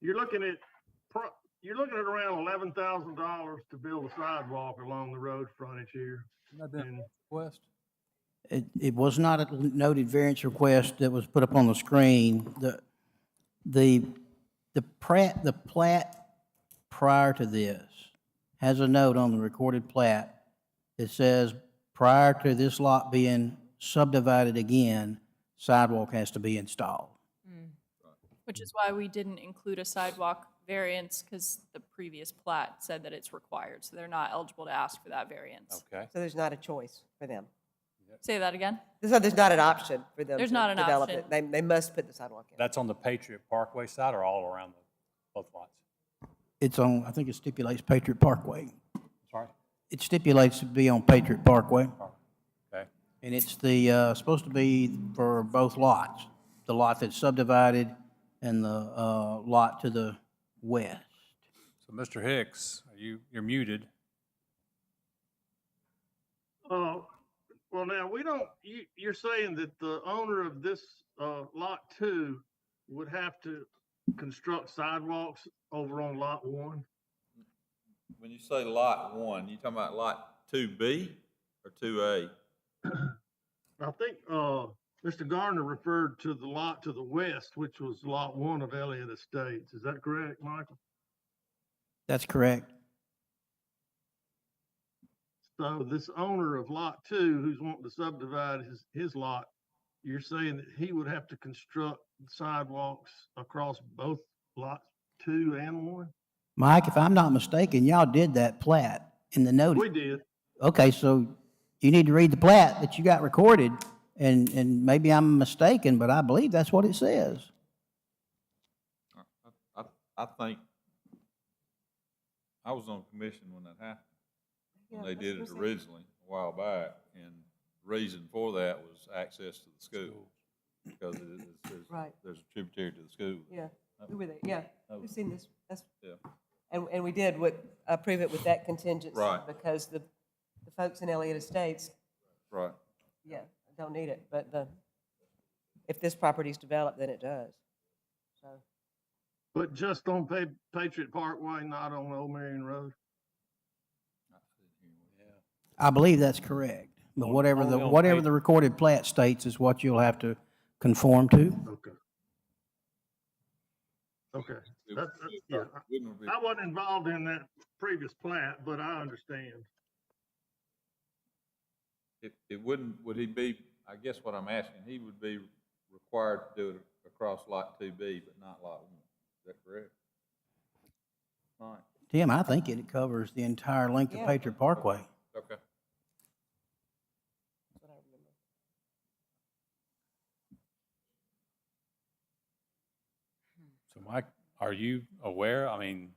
you're looking at, pro- you're looking at around eleven thousand dollars to build a sidewalk along the road frontage here. Not that And west? It, it was not a noted variance request that was put up on the screen. The, the, the plat, the plat prior to this has a note on the recorded plat that says, prior to this lot being subdivided again, sidewalk has to be installed. Which is why we didn't include a sidewalk variance, because the previous plat said that it's required, so they're not eligible to ask for that variance. Okay. So there's not a choice for them. Say that again? So there's not an option for them to There's not an develop option. it. They, they must put the sidewalk in. That's on the Patriot Parkway side or all around the, both lots? It's on, I think it stipulates Patriot Parkway. Sorry? It stipulates to be on Patriot Parkway, Okay. and it's the, uh, supposed to be for both lots, the lot that's subdivided and the uh, lot to the west. So Mr. Hicks, are you, you're muted. Uh, well, now, we don't, you, you're saying that the owner of this, uh, lot two would have to construct sidewalks over on lot one? When you say lot one, you talking about lot two B or two A? I think, uh, Mr. Garner referred to the lot to the west, which was lot one of Elliott Estates. Is that correct, Michael? That's correct. So this owner of lot two, who's wanting to subdivide his, his lot, you're saying that he would have to construct sidewalks across both lot two and one? Mike, if I'm not mistaken, y'all did that plat in the We notice. did. Okay, so you need to read the plat that you got recorded, and, and maybe I'm mistaken, but I believe that's what it says. I, I think, I was on commission when that happened. When they did it originally, a while back, and the reason for that was access to the school. Because it is, there's- Right. there's a tributary to the school. Yeah, we were there, yeah. that We've was- seen this, that's, Yeah. and, and we did with, approve it with that contingency. Right. Because the, the folks in Elliott Estates, Right. yeah, don't need it, but the, if this property's developed, then it does. So, But just on Pa- Patriot Parkway, not on Old Marion Road? I believe that's correct, but whatever the, only on whatever page- the recorded plat states is what you'll have to conform to. Okay. Okay, It That- was- that- yeah, wouldn't it be- I wasn't involved in that previous plat, but I understand. It, it wouldn't, would he be, I guess what I'm asking, he would be required to do it across lot two B, but not lot one. Is that correct? All right, Tim, I think it covers the entire length of Yeah. Patriot Parkway. okay. So Mike, are you aware, I mean,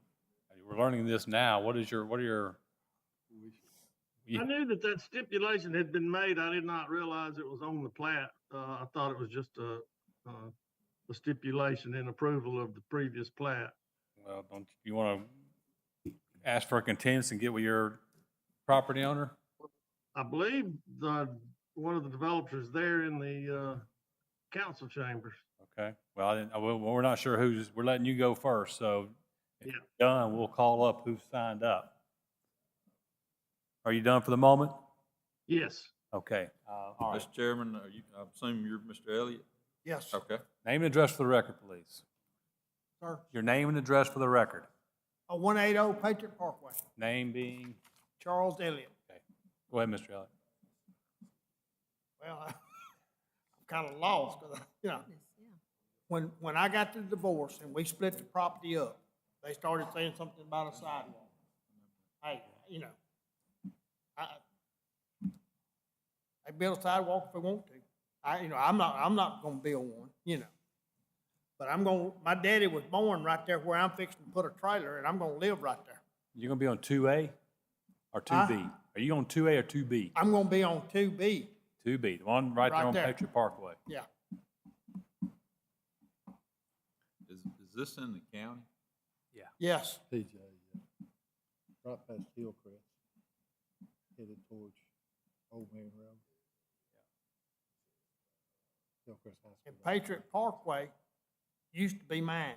we're learning this now, what is your, what are your? I You- knew that that stipulation had been made. I did not realize it was on the plat. Uh, I thought it was just a, uh, a stipulation in approval of the previous plat. Well, don't, you want to ask for a continuance and get with your property owner? I believe the, one of the developers there in the, uh, council chambers. Okay, well, I didn't, I- well, we're not sure who's, we're letting you go first, so if Yeah. you're done, we'll call up who signed up. Are you done for the moment? Yes. Okay, uh, all right. Mr. Chairman, are you, I assume you're Mr. Elliott? Yes. Okay. Name and address for the record, please. Sir, Your name and address for the record. a one eight oh Patriot Parkway, Name being, Charles Elliott. go ahead, Mr. Elliott. Well, I'm kind of lost, 'cause I- you know. When, when I got the divorce and we split the property up, they started saying something about a sidewalk. Hey, you know, I, they build a sidewalk if they want to. I, you know, I'm not, I'm not gonna build one, you know. But I'm gonna, my daddy was born right there where I'm fixing to put a trailer, and I'm gonna live right there. You're gonna be on two A or two B? Are you on two A or two B? I'm gonna be on two B, Two B, the one right there Right on there. Patriot Parkway. yeah. Is, is this in the county? Yes, TJ, yeah. Right past Hillcrest, headed towards Old Man Road. Hillcrest High School. and Patriot Parkway used to be mine.